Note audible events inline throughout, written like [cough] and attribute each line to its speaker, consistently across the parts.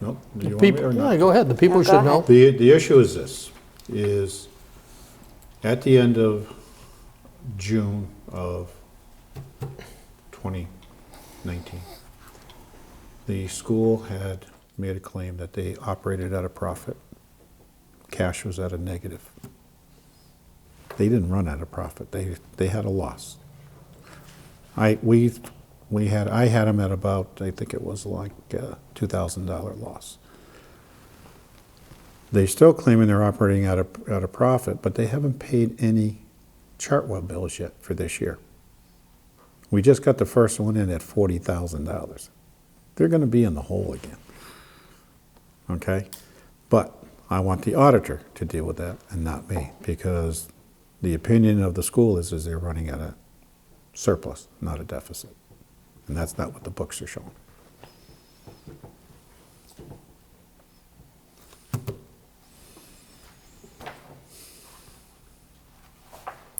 Speaker 1: No, do you want me
Speaker 2: People,
Speaker 1: or
Speaker 2: no,
Speaker 1: not?
Speaker 2: go ahead, the people
Speaker 3: No, go
Speaker 2: should
Speaker 3: ahead.
Speaker 2: know.
Speaker 1: The, the issue is this, is at the end of June of 2019, the school had made a claim that they operated at a profit. Cash was at a negative. They didn't run at a profit, they, they had a loss. I, we, we had, I had them at about, I think it was like uh $2,000 loss. They're still claiming they're operating at a, at a profit, but they haven't paid any Chartwell bills yet for this year. We just got the first one in at forty thousand dollars. They're gonna be in the hole again. Okay? But I want the auditor to deal with that and not me, because the opinion of the school is, is they're running at a surplus, not a deficit. And that's not what the books are showing.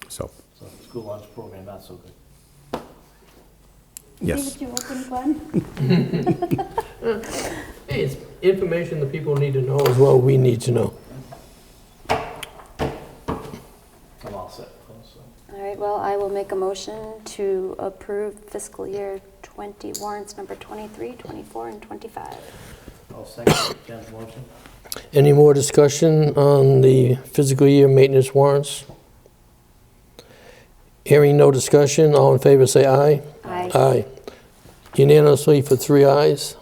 Speaker 1: So,
Speaker 4: So the school lunch program, not so good.
Speaker 1: yes.
Speaker 3: Leave it to open, Glenn.
Speaker 2: It's information that people need to know as well, we need to know.
Speaker 4: I'm all set. Oh, so.
Speaker 3: All right, well, I will make a motion to approve fiscal year 20 warrants number 23, 24, and 25.
Speaker 4: I'll [coughs] second Ken's motion.
Speaker 2: Any more discussion on the fiscal year maintenance warrants? Hearing no discussion, all in favor say aye.
Speaker 3: Aye.
Speaker 2: Aye. Unanimously for three ayes.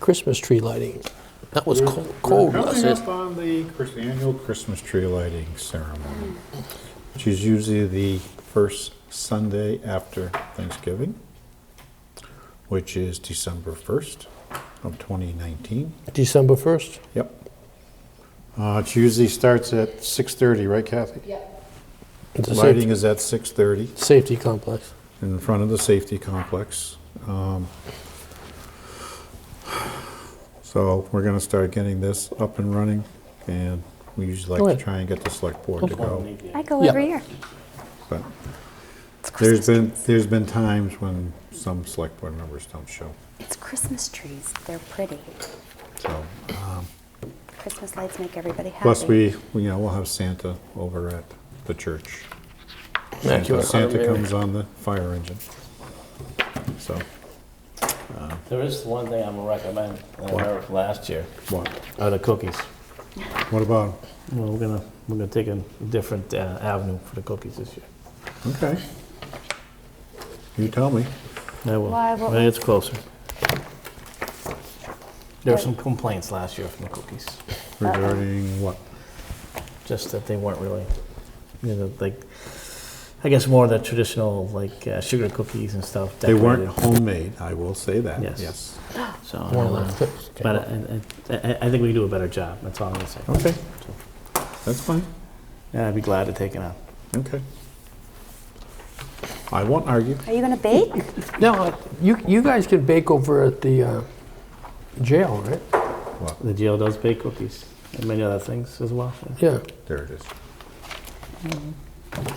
Speaker 2: Christmas tree lighting. That was co- cold.
Speaker 1: We're
Speaker 2: last
Speaker 1: coming
Speaker 2: year.
Speaker 1: up on the Chris- annual Christmas tree lighting ceremony, which is usually the first Sunday after Thanksgiving, which is December 1st of 2019.
Speaker 2: December 1st?
Speaker 1: Yep. Uh, It usually starts at 6:30, right Kathy?
Speaker 2: It's a
Speaker 1: Lighting
Speaker 2: safety-
Speaker 1: is at 6:30
Speaker 2: safety complex.
Speaker 1: in front of the safety complex. Um, So we're gonna start getting this up and running, and we usually
Speaker 2: Go
Speaker 1: like
Speaker 2: ahead.
Speaker 1: to try and get the select board to go.
Speaker 4: Maybe
Speaker 3: I go
Speaker 2: Yeah.
Speaker 3: every year.
Speaker 1: But there's been, there's been times when some select board members don't show,
Speaker 5: It's Christmas trees. They're pretty.
Speaker 1: so.
Speaker 5: Christmas lights make everybody happy.
Speaker 1: Plus, we, we, you know, we'll have Santa over at the church. Santa
Speaker 2: Immaculate Heart
Speaker 1: Santa
Speaker 2: Mary.
Speaker 1: comes on the fire engine. So,
Speaker 4: There is one thing I'm gonna recommend, that I
Speaker 1: What?
Speaker 4: learned last year,
Speaker 1: what,
Speaker 4: are the cookies.
Speaker 1: what about,
Speaker 4: Well, we're gonna, we're gonna take a different uh, avenue for the cookies this year.
Speaker 1: okay. You tell me.
Speaker 4: I will.
Speaker 3: Why, what
Speaker 4: When it's closer. There were some complaints last year from the cookies,
Speaker 1: Regarding what?
Speaker 4: just that they weren't really, you know, like, I guess more of the traditional, like, uh, sugar cookies and stuff.
Speaker 1: They weren't
Speaker 4: decorated.
Speaker 1: homemade, I will say that,
Speaker 4: Yes.
Speaker 1: yes.
Speaker 4: So,
Speaker 2: One
Speaker 4: I'll, uh,
Speaker 2: of those.
Speaker 4: but I, I- I, I think we can do a better job, that's all I'm gonna say.
Speaker 1: Okay, that's fine,
Speaker 4: And I'd be glad to take it on.
Speaker 1: okay. I won't argue.
Speaker 5: Are you going to bake?
Speaker 2: Now, uh, you, you guys can bake over at the uh, jail, right?
Speaker 1: Well,
Speaker 4: The jail does bake cookies and many other things as well. yeah.
Speaker 2: Yeah.
Speaker 1: there it is.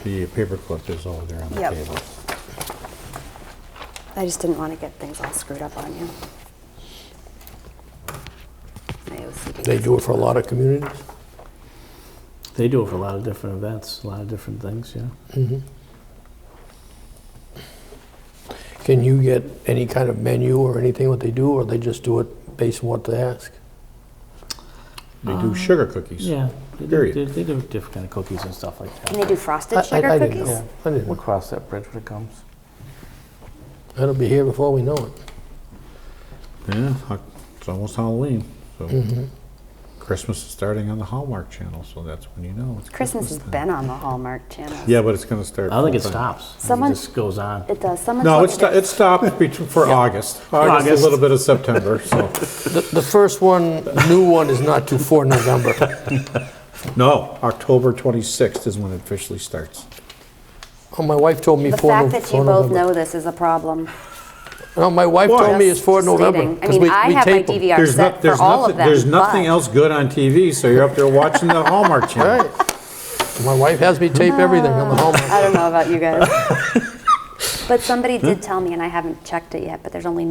Speaker 1: The paperclip is over there on the
Speaker 5: Yep.
Speaker 1: table.
Speaker 5: I just didn't want to get things all screwed up on you. My OCD.
Speaker 2: They do it for a lot of communities.
Speaker 4: They do it for a lot of different events, a lot of different things, yeah.
Speaker 2: Can you get any kind of menu or anything what they do, or they just do it based on what they ask?
Speaker 1: They do sugar cookies.
Speaker 4: Oh. Yeah, they do,
Speaker 1: Period.
Speaker 4: they, they do different kind of cookies and stuff like
Speaker 5: Can
Speaker 4: that.
Speaker 5: they do frosted
Speaker 2: I- I-
Speaker 5: sugar
Speaker 2: I didn't
Speaker 5: cookies?
Speaker 2: know. I didn't
Speaker 4: We'll
Speaker 2: know.
Speaker 4: cross that bridge when it comes.
Speaker 2: That'll be here before we know it.
Speaker 1: Yeah, ho- it's almost Halloween, so
Speaker 4: Mm-hmm.
Speaker 1: Christmas is starting on the Hallmark Channel, so that's when you know it's
Speaker 5: Christmas has
Speaker 1: time.
Speaker 5: been on the Hallmark Channel.
Speaker 1: Yeah, but it's gonna start.
Speaker 4: I don't think it
Speaker 1: full-time.
Speaker 4: stops.
Speaker 5: Someone-
Speaker 4: It just goes on.
Speaker 5: It does. Someone
Speaker 1: No,
Speaker 5: told
Speaker 1: it
Speaker 5: me
Speaker 1: sto-
Speaker 5: that-
Speaker 1: it stopped betw- for August, August, a
Speaker 4: August.
Speaker 1: little bit of September, [laughs] so.
Speaker 2: The, the first one, new one, is not due for November.
Speaker 1: No, October 26th is when it officially starts.
Speaker 2: Oh, my wife told me
Speaker 5: the
Speaker 2: for
Speaker 5: fact
Speaker 2: November.
Speaker 5: that you both know this is a problem.
Speaker 2: No, my wife
Speaker 1: Why?
Speaker 2: told me it's for
Speaker 5: Just
Speaker 2: November.
Speaker 5: stating. I
Speaker 2: 'cause
Speaker 5: mean,
Speaker 2: we-
Speaker 5: I
Speaker 2: we
Speaker 5: have my
Speaker 2: tape 'em.
Speaker 5: DVR
Speaker 1: There's
Speaker 5: set
Speaker 1: not,
Speaker 5: for
Speaker 1: there's
Speaker 5: all of
Speaker 1: nothing,
Speaker 5: them.
Speaker 1: there's nothing
Speaker 5: but-
Speaker 1: else good on TV, so you're up there watching the [laughs] Hallmark Channel.
Speaker 2: Right. My wife has me tape everything
Speaker 5: [laughs]
Speaker 2: on the Hallmark. [laughs]
Speaker 5: I don't know about you guys. but somebody did tell me, and I haven't checked it yet, but there's only